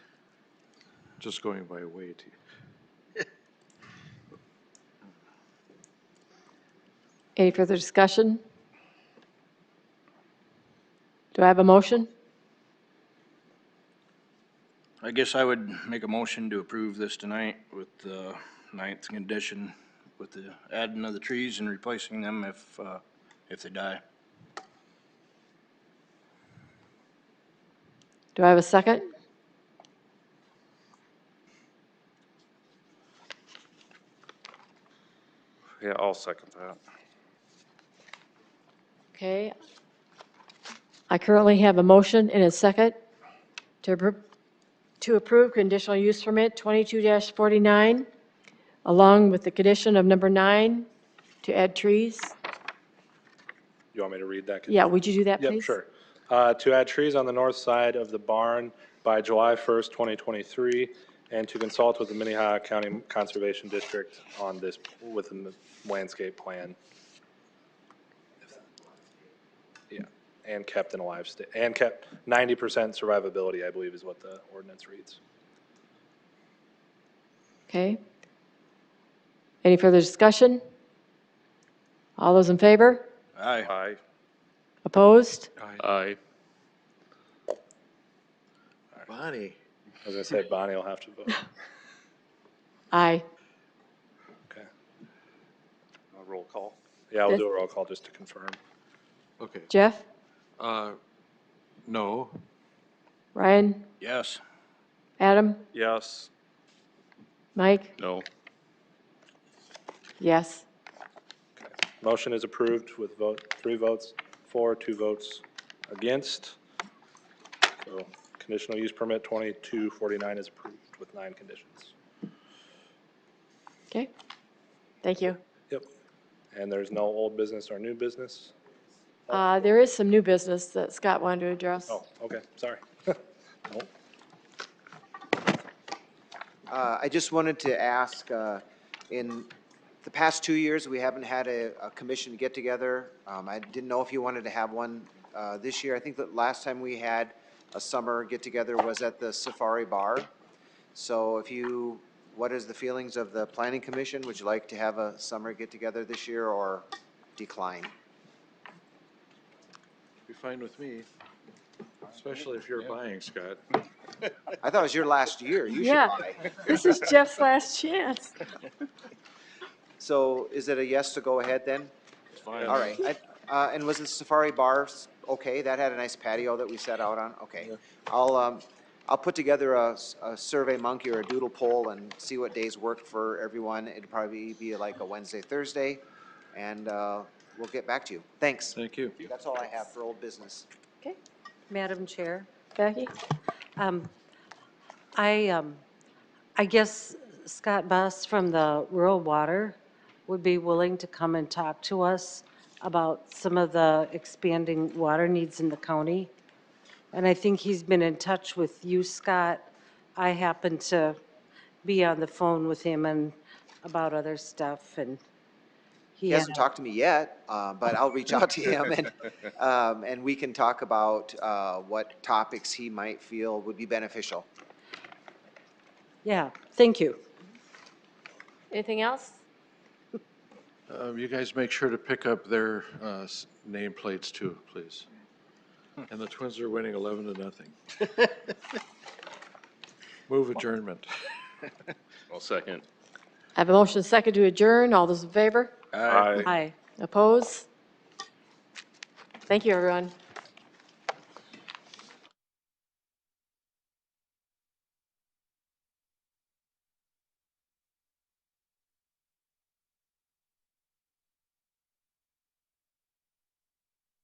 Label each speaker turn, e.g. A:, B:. A: just going by weight.
B: Any further discussion? Do I have a motion?
C: I guess I would make a motion to approve this tonight with the ninth condition, with the adding of the trees and replacing them if, uh, if they die.
B: Do I have a second?
D: Yeah, I'll second that.
B: Okay. I currently have a motion and a second to, appro- to approve conditional use permit 22-49, along with the condition of number nine, to add trees.
D: You want me to read that?
B: Yeah, would you do that, please?
D: Yep, sure. Uh, To add trees on the north side of the barn by July 1st, 2023, and to consult with the Minnehaha County Conservation District on this, within the landscape plan. Yeah, and kept in a live state, and kept 90% survivability, I believe is what the ordinance reads.
B: Okay. Any further discussion? All those in favor?
C: Aye.
D: Aye.
B: Opposed?
D: Aye.
A: Bonnie,
D: I was gonna say Bonnie will have to vote.
B: Aye.
D: Okay. Roll call? Yeah,
B: Yes.
D: I'll do a roll call just to confirm.
A: okay,
B: Jeff?
A: uh, no,
B: Ryan?
C: Yes.
B: Adam?
D: Yes.
B: Mike?
D: No.
B: Yes.
D: Motion is approved with vote, three votes for, two votes against. So conditional use permit 2249 is approved with nine conditions.
B: Okay. Thank you.
D: Yep. And there's no old business or new business?
B: Uh, There is some new business that Scott wanted to address.
D: Oh, okay, sorry. Nope.
E: Uh, I just wanted to ask, uh, in the past two years, we haven't had a, a commission get-together. Um, I didn't know if you wanted to have one, uh, this year. I think that last time we had a summer get-together was at the Safari Bar. So if you, what is the feelings of the planning commission? Would you like to have a summer get-together this year or decline?
A: be fine with me, especially if you're buying, Scott.
E: I thought it was your last year. You should
B: Yeah.
E: buy.
B: This is Jeff's last chance.
E: So is it a yes to go ahead then? All right, I- uh, and was the Safari Bar, s- okay, that had a nice patio that we sat out on, okay. I'll, um, I'll put together a, s- a Survey Monkey or a doodle poll and see what days work for everyone. It'd probably be like a Wednesday, Thursday, and, uh, we'll get back to you. Thanks.
A: Thank you.
E: That's all I have for old business.
F: Okay. Madam Chair,
B: Becky?
F: um, I, um, I guess Scott Buss from the Rural Water would be willing to come and talk to us about some of the expanding water needs in the county. And I think he's been in touch with you, Scott. I happened to be on the phone with him and about other stuff, and he
E: He
F: had
E: hasn't talked to me yet, uh, but I'll reach out to him and, um, and we can talk about, uh, what topics he might feel would be beneficial.
F: Yeah, thank you.
B: Anything else?
A: Um, you guys make sure to pick up their, uh, s- nameplates too, please. And the Twins are winning eleven to nothing. Move adjournment.
C: I'll second.
B: I have a motion and second to adjourn. All those in favor?
C: Aye.
F: Hi.
B: Oppose? Thank you, everyone.